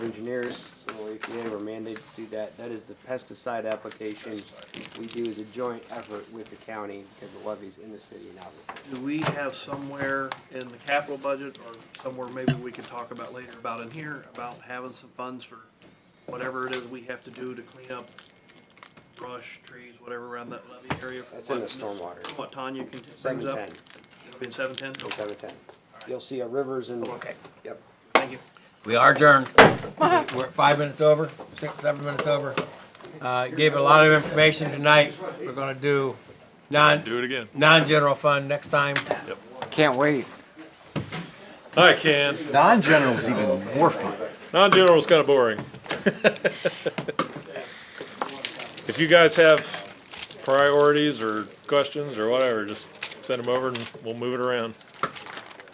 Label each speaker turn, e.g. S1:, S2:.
S1: engineers, so if they were mandated to do that, that is the pesticide application we do as a joint effort with the county, because the levee's in the city and out of the city.
S2: Do we have somewhere in the capital budget or somewhere maybe we can talk about later about in here, about having some funds for whatever it is we have to do to clean up brush, trees, whatever around that levee area?
S1: That's in the stormwater.
S2: What Tanya can, brings
S1: Seven
S2: up?
S1: ten,
S2: It'll be in seven ten?
S1: and seven ten. You'll see a rivers and,
S2: Okay,
S1: yep.
S2: thank you.
S3: We are adjourned. We're five minutes over, six, seven minutes over. Uh, gave a lot of information tonight. We're gonna do non,
S4: Do it again.
S3: non-general fund next time.
S5: Can't wait.
S4: I can.
S6: Non-general's even more fun.
S4: Non-general's kind of boring. If you guys have priorities or questions or whatever, just send them over and we'll move it around.